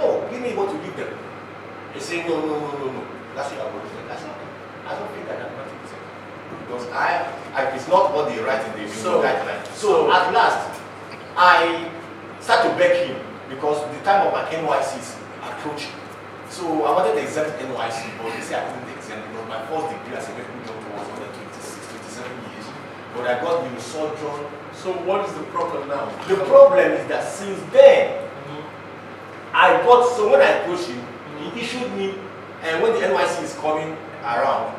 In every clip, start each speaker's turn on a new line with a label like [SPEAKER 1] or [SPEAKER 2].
[SPEAKER 1] give me what you give them. They say, no, no, no, no, no. That's what I'm going to say. That's not, I don't think I can grant it. Because I, I, it's not what they write in the so,
[SPEAKER 2] So-
[SPEAKER 1] guideline.
[SPEAKER 2] so-
[SPEAKER 1] So at last, I start to beg him because the time of my NYC is approaching. So I wanted to exempt NYC, but he said I couldn't exempt because my first degree as a medical doctor was under 26, 27 years. But I got the sojourn.
[SPEAKER 2] So what is the problem now?
[SPEAKER 1] The problem is that since then, I got so when I approached him, he issued me, and when the NYC is coming around,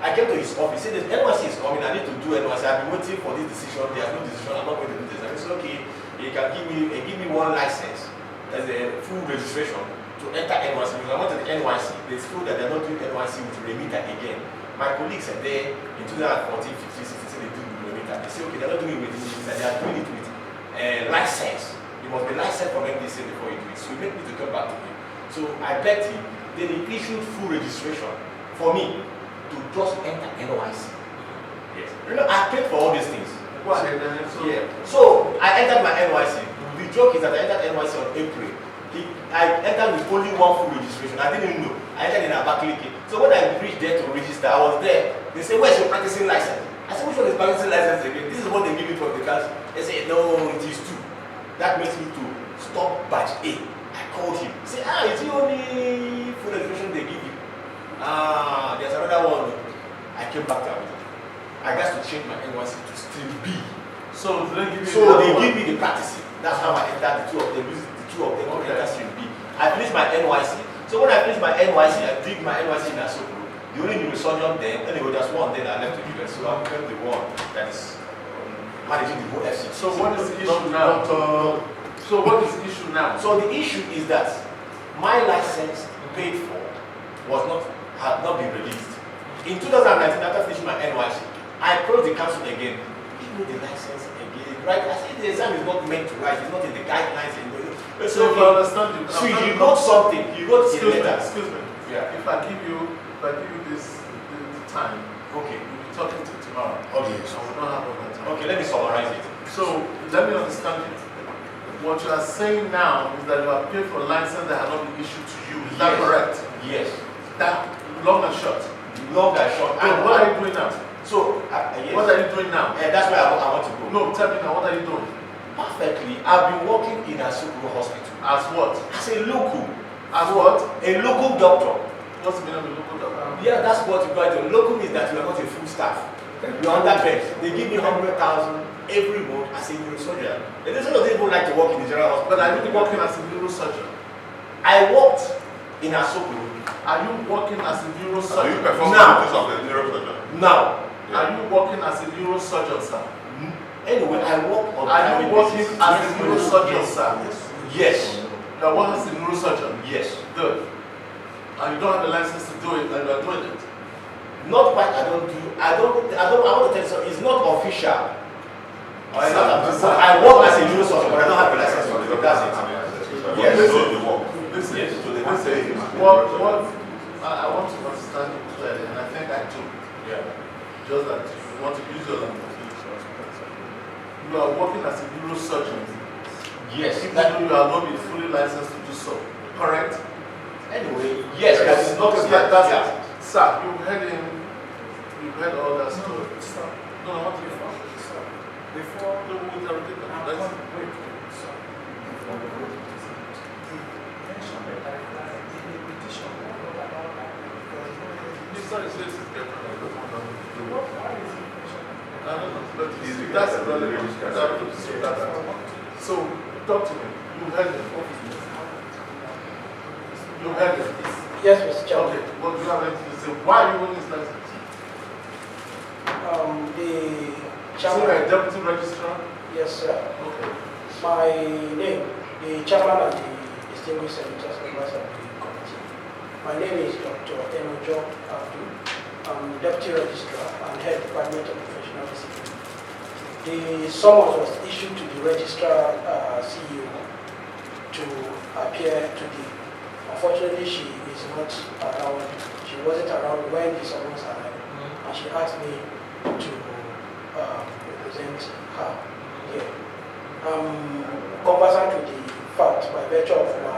[SPEAKER 1] I came to his office. Said the NYC is coming. I need to do NYC. I've been waiting for this decision. There's no decision. I'm not going to do this. I said, okay, you can give me, uh, give me one license as a full registration to enter NYC. Because I wanted the NYC. They feel that they're not doing NYC with Remita again. My colleagues are there in 2014, 15, 16. They do Remita. They say, okay, they're not doing it with Remita. They are doing it with uh, license. You must be licensed from MDC before you do it. So he made me to come back to him. So I begged him. Then he issued full registration for me to just enter NYC. Yes. You know, I paid for all these things.
[SPEAKER 2] Go ahead, then. So-
[SPEAKER 1] Yeah. So I entered my NYC. The joke is that I entered NYC on April. He, I entered with only one full registration. I didn't know. I entered in Abakaliki. So when I reached there to register, I was there. They said, "Where's your practicing license?" I said, "Which one is practicing license again?" This is what they give me from the council. They said, "No, it is two. That makes me to stop batch A. I called him. He said, "Ah, it's the only full registration they give you." Ah, there's another one. I came back to Abuja. I got to change my NYC to still B.
[SPEAKER 2] So they give you
[SPEAKER 1] So
[SPEAKER 2] another
[SPEAKER 1] they
[SPEAKER 2] one.
[SPEAKER 1] give me the practicing. That's how I entered the two of them. use The two of them
[SPEAKER 2] Okay.
[SPEAKER 1] okay. entered stream B. I finished my NYC. So when I finished my NYC, I did my NYC in Asoko. The only neurosurgeon then, anyway, there's one then I left to US. So I'm currently the one that is um, managing the whole FC.
[SPEAKER 2] So what is the
[SPEAKER 1] Not-
[SPEAKER 2] issue now?
[SPEAKER 1] not, uh,
[SPEAKER 2] So what is the issue now?
[SPEAKER 1] so the issue is that my license paid for was not had not been released. In 2019, after finishing my NYC, I approached the council again. Give me the license again, right? I said the exam is not meant to write. It's not in the guidelines. In the,
[SPEAKER 2] So if I
[SPEAKER 1] okay.
[SPEAKER 2] understand you,
[SPEAKER 1] so
[SPEAKER 2] I'm
[SPEAKER 1] you
[SPEAKER 2] not-
[SPEAKER 1] wrote something. You wrote a
[SPEAKER 2] excuse me,
[SPEAKER 1] letter.
[SPEAKER 2] excuse me.
[SPEAKER 1] Yeah.
[SPEAKER 2] If I give you, if I give you this the, the time,
[SPEAKER 1] Okay.
[SPEAKER 2] you'll be talking to tomorrow.
[SPEAKER 1] Okay.
[SPEAKER 2] I will not have all that time.
[SPEAKER 1] Okay. Let me summarize it.
[SPEAKER 2] So let me understand it. What you are saying now is that you have paid for license that had not been issued to you. Is that
[SPEAKER 1] Yes.
[SPEAKER 2] correct?
[SPEAKER 1] Yes.
[SPEAKER 2] That long and short.
[SPEAKER 1] Long and short.
[SPEAKER 2] So
[SPEAKER 1] And
[SPEAKER 2] what are you doing now?
[SPEAKER 1] So uh, yes.
[SPEAKER 2] What are you doing now?
[SPEAKER 1] Eh, that's where I, wa- I want to go.
[SPEAKER 2] No, tell me now. What are you doing?
[SPEAKER 1] Perfectly. I've been working in Asukuru Hospital
[SPEAKER 2] As what?
[SPEAKER 1] as a local,
[SPEAKER 2] As what?
[SPEAKER 1] a local doctor.
[SPEAKER 2] What's the meaning of the local doctor?
[SPEAKER 1] Yeah, that's what you got. The locum is that you are not a full staff. You are under bed. They give you 100,000 every month as a neurosurgeon. The neurosurgeon doesn't even like to work in the general hospital.
[SPEAKER 2] But are you working as a neurosurgeon?
[SPEAKER 1] I worked in Asoko.
[SPEAKER 2] Are you working as a
[SPEAKER 3] So you
[SPEAKER 2] neurosurgeon?
[SPEAKER 3] perform the
[SPEAKER 1] Now.
[SPEAKER 3] duties of the neurosurgeon.
[SPEAKER 1] Now,
[SPEAKER 2] Are you working as a neurosurgeon, sir?
[SPEAKER 1] n- anyway, I work on
[SPEAKER 2] Are you
[SPEAKER 1] private
[SPEAKER 2] working
[SPEAKER 1] basis.
[SPEAKER 2] as a
[SPEAKER 1] Yes.
[SPEAKER 2] neurosurgeon, sir?
[SPEAKER 1] Yes.
[SPEAKER 2] You are working as a neurosurgeon.
[SPEAKER 1] Yes.
[SPEAKER 2] Good. And you don't have a license to do it, and you are doing it.
[SPEAKER 1] Not quite. I don't do. I don't. I don't. I want to tell you something. It's not official. I,
[SPEAKER 2] Sir, sir.
[SPEAKER 1] I work as a neurosurgeon, but I don't have a license for it. That's it.
[SPEAKER 3] it.
[SPEAKER 1] Yes.
[SPEAKER 3] So you work.
[SPEAKER 2] Listen,
[SPEAKER 1] Yes.
[SPEAKER 3] So they don't say he's a
[SPEAKER 2] what,
[SPEAKER 3] neurosurgeon.
[SPEAKER 2] what, I, I want to understand you clearly, and I think I do.
[SPEAKER 1] Yeah.
[SPEAKER 2] Just that you want to use your language. You are working as a neurosurgeon.
[SPEAKER 1] Yes.
[SPEAKER 2] Even
[SPEAKER 1] That-
[SPEAKER 2] though you are not been fully licensed to do so. Correct?
[SPEAKER 1] Anyway, yes, that is not
[SPEAKER 2] Okay, that- that's it. Sir, you heard him. You heard all that story. No, I want to be found.
[SPEAKER 4] Before
[SPEAKER 2] No, we are taking
[SPEAKER 4] I'm
[SPEAKER 2] the
[SPEAKER 4] going
[SPEAKER 2] license.
[SPEAKER 4] to break it, so the tension that I felt, the repetition all about that, because
[SPEAKER 2] Mr. Is this is different.
[SPEAKER 4] the work that is in question,
[SPEAKER 2] I don't know, but you see, that's relevant. That's relevant. So
[SPEAKER 4] I
[SPEAKER 2] that-
[SPEAKER 4] want to
[SPEAKER 2] So, talk to me. You heard him. You heard him.
[SPEAKER 5] Yes, Mr. Chairman.
[SPEAKER 2] Okay, what do you have anything to say? Why are you on this license?
[SPEAKER 5] Um, the
[SPEAKER 2] So you're a
[SPEAKER 5] chairman,
[SPEAKER 2] deputy registrar?
[SPEAKER 5] yes, sir.
[SPEAKER 2] Okay.
[SPEAKER 5] My name, the chairman and the distinguished senators, members of the committee. My name is Dr. Enojo Abdul. I'm deputy registrar and head department of professional discipline. The summons was issued to the registrar uh, CEO to appear today. Unfortunately, she is not around. She wasn't around when the summons arrived. and she asked me to uh, represent um, her here. I'm conversant with the fact by virtue of my